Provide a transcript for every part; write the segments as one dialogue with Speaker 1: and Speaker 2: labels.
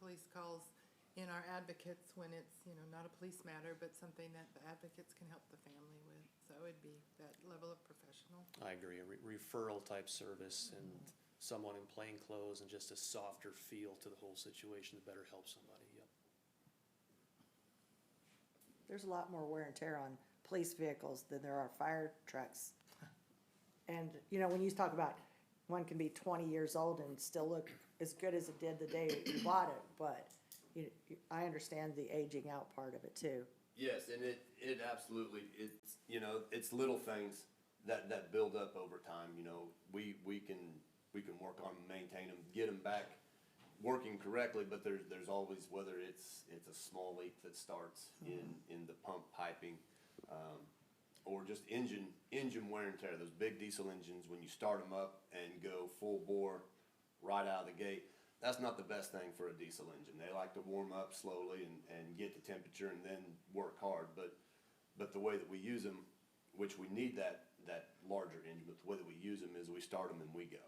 Speaker 1: police calls in our advocates when it's, you know, not a police matter, but something that the advocates can help the family with. So it'd be that level of professional.
Speaker 2: I agree, a re- referral type service and someone in plain clothes and just a softer feel to the whole situation to better help somebody, yep.
Speaker 3: There's a lot more wear and tear on police vehicles than there are fire trucks. And, you know, when you talk about, one can be twenty years old and still look as good as it did the day you bought it, but you, you- I understand the aging out part of it too.
Speaker 4: Yes, and it, it absolutely, it's, you know, it's little things that, that build up over time, you know. We, we can, we can work on, 'em, maintain them, get them back working correctly, but there's, there's always, whether it's, it's a small leak that starts in, in the pump piping, um, or just engine, engine wear and tear, those big diesel engines, when you start them up and go full bore right out of the gate, that's not the best thing for a diesel engine. They like to warm up slowly and, and get the temperature and then work hard, but, but the way that we use them, which we need that, that larger engine, but the way that we use them is we start them and we go.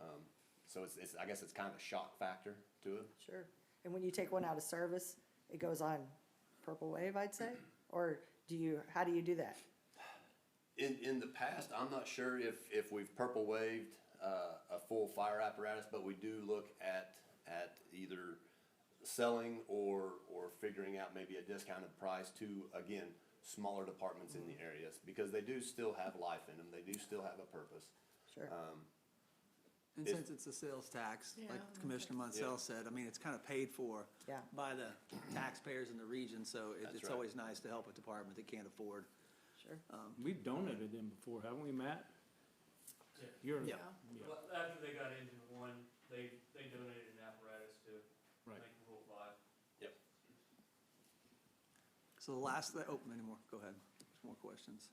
Speaker 4: Um, so it's, it's, I guess it's kind of a shock factor to it.
Speaker 3: Sure. And when you take one out of service, it goes on purple wave, I'd say? Or do you, how do you do that?
Speaker 4: In, in the past, I'm not sure if, if we've purple waved, uh, a full fire apparatus, but we do look at, at either selling or, or figuring out maybe a discounted price to, again, smaller departments in the areas, because they do still have life in them, they do still have a purpose.
Speaker 3: Sure.
Speaker 5: Uh,
Speaker 6: And
Speaker 4: If-
Speaker 6: since it's a sales tax,
Speaker 1: Yeah,
Speaker 6: like
Speaker 1: I
Speaker 6: Commissioner Monsell said, I mean, it's kind of paid for
Speaker 3: Yeah.
Speaker 6: by the taxpayers in the region, so it,
Speaker 4: That's
Speaker 6: it's
Speaker 4: right.
Speaker 6: always nice to help a department that can't afford.
Speaker 3: Sure.
Speaker 7: We've donated them before, haven't we, Matt?
Speaker 8: Yeah.
Speaker 7: You're,
Speaker 6: Yeah.
Speaker 8: Well, after they got engine one, they, they donated an apparatus to
Speaker 7: Right.
Speaker 8: make the whole five.
Speaker 6: So the last, thi- oh, any more, go ahead, more questions.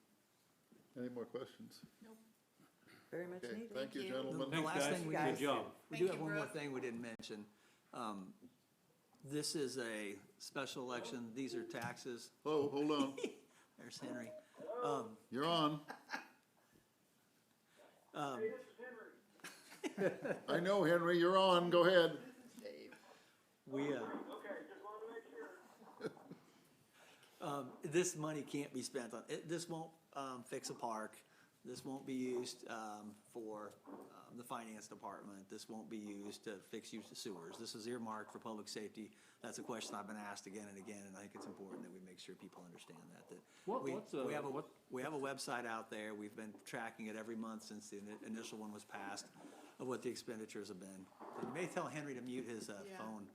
Speaker 5: Any more questions?
Speaker 3: Very much
Speaker 5: Okay,
Speaker 3: needed.
Speaker 5: thank you,
Speaker 1: you.
Speaker 6: The-
Speaker 5: gentlemen.
Speaker 6: The last
Speaker 7: guys.
Speaker 6: thing we
Speaker 3: Good
Speaker 6: did,
Speaker 7: job.
Speaker 6: we
Speaker 1: Thank
Speaker 6: do
Speaker 1: you,
Speaker 6: have one more
Speaker 1: Brooke.
Speaker 6: thing we didn't mention. Um, This is a special election, these are taxes,
Speaker 5: Oh, hold on,
Speaker 6: there's Henry.
Speaker 5: you're on.
Speaker 7: Um,
Speaker 5: I know, Henry, you're on, go ahead.
Speaker 6: We, uh,
Speaker 9: Okay, just wanted to make sure.
Speaker 6: um, this money can't be spent on, it, this won't, um, fix a park. This won't be used, um, for, um, the finance department. This won't be used to fix used sewers. This is earmarked for public safety. That's a question I've been asked again and again, and I think it's important that we make sure people understand that, that.
Speaker 7: What-
Speaker 6: we-
Speaker 7: what's, uh,
Speaker 6: we have a-
Speaker 7: what-
Speaker 6: We have a website out there. We've been tracking it every month since the ini- initial one was passed of what the expenditures have been. You may tell Henry to mute his, uh,
Speaker 1: Yeah.
Speaker 6: phone.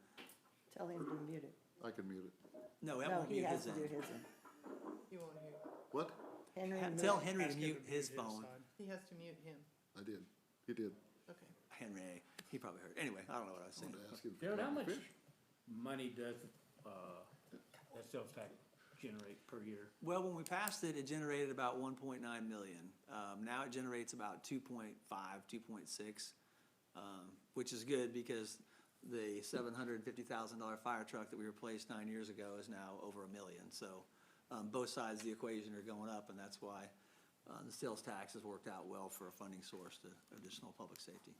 Speaker 3: Tell him to mute it.
Speaker 5: I can mute it.
Speaker 6: No, that
Speaker 3: No,
Speaker 6: won't
Speaker 3: he
Speaker 6: mute
Speaker 3: has
Speaker 6: his
Speaker 3: to do his
Speaker 6: end.
Speaker 3: end.
Speaker 1: You won't hear.
Speaker 5: What?
Speaker 3: Henry,
Speaker 6: Ha-
Speaker 3: mute
Speaker 6: Tell
Speaker 3: it.
Speaker 6: Henry to mute his phone.
Speaker 1: He has to mute him.
Speaker 5: I did, he did.
Speaker 1: Okay.
Speaker 6: Henry, he probably heard. Anyway, I don't know what I was saying.
Speaker 5: Wanted to ask him if he
Speaker 7: Jared, how
Speaker 5: liked
Speaker 7: much
Speaker 5: fish.
Speaker 7: money does, uh, that sales tax generate per year?
Speaker 6: Well, when we passed it, it generated about one point nine million. Um, now it generates about 2.5, 2.6, um, which is good because the seven hundred and fifty thousand dollar fire truck that we replaced nine years ago is now over a million. So, um, both sides of the equation are going up and that's why, uh, the sales tax has worked out well for a funding source to additional public safety.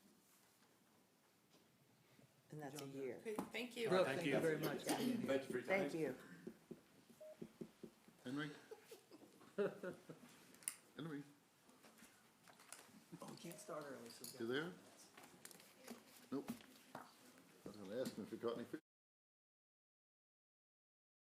Speaker 3: And that's a year.
Speaker 1: Okay, thank you.
Speaker 6: Brooke, thank you very much.
Speaker 4: Thank you for your time.
Speaker 3: Thank you.
Speaker 5: Henry? Henry,
Speaker 6: Oh, we can't start early, so.
Speaker 5: you there? Nope. I was gonna ask him if he caught any fish.